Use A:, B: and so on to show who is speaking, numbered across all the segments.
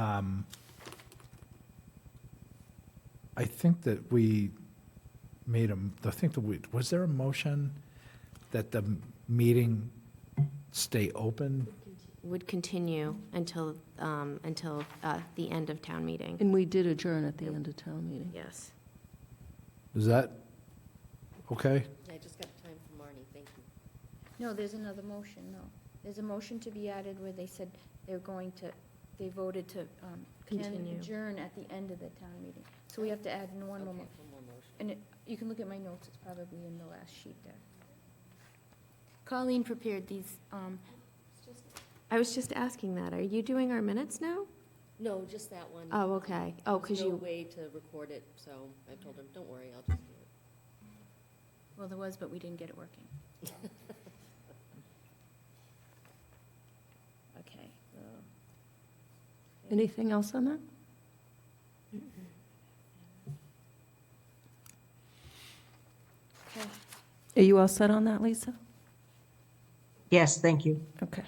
A: Um, I think that we made a, m- I think that we, was there a motion that the m- meeting stay open?
B: Would continue until, um, until uh, the end of town meeting.
C: And we did adjourn at the end of town meeting.
B: Yes.
A: Is that okay?
D: I just got time for Marnie, thank you.
E: No, there's another motion, no. There's a motion to be added where they said they're going to, they voted to um, can-
B: Continue.
E: adjourn at the end of the town meeting. So we have to add in one more. mo- And it- you can look at my notes, it's probably in the last sheet there. Colleen prepared these, um,
B: I was just asking that. Are you doing our minutes now?
D: No, just that one.
B: Oh, okay. Oh, because
D: There's no
B: you,
D: way to record it, so I told him, don't worry, I'll just do it.
E: well, there was, but we didn't get it working. Okay. well,
C: Anything else on that?
E: okay.
C: Are you all set on that, Lisa?
F: Yes, thank you.
C: Okay.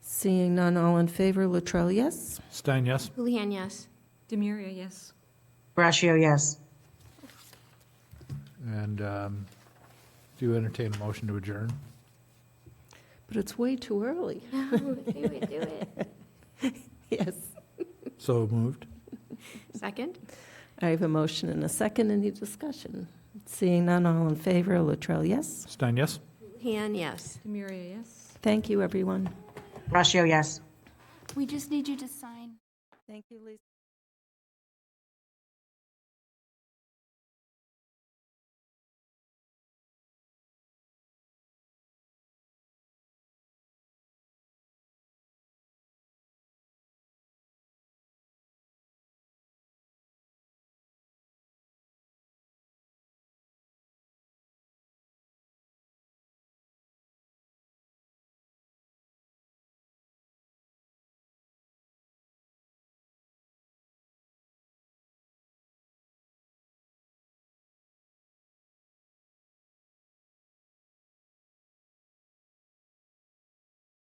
C: Seeing none, all in favor, Latrell, yes?
A: Stein, yes?
B: Houlihan, yes.
G: Demuria, yes.
F: Brashio, yes.
A: And um, do you entertain a motion to adjourn?
C: But it's way too early.
B: No, do it, do it.
C: Yes.
A: So moved?
B: Second?
C: I have a motion and a second. Any discussion? Seeing none, all in favor, Latrell, yes?
A: Stein, yes?
B: Houlihan, yes.
G: Demuria, yes.
C: Thank you, everyone.
F: Brashio, yes.
E: We just need you to sign.
C: Thank you, Lisa.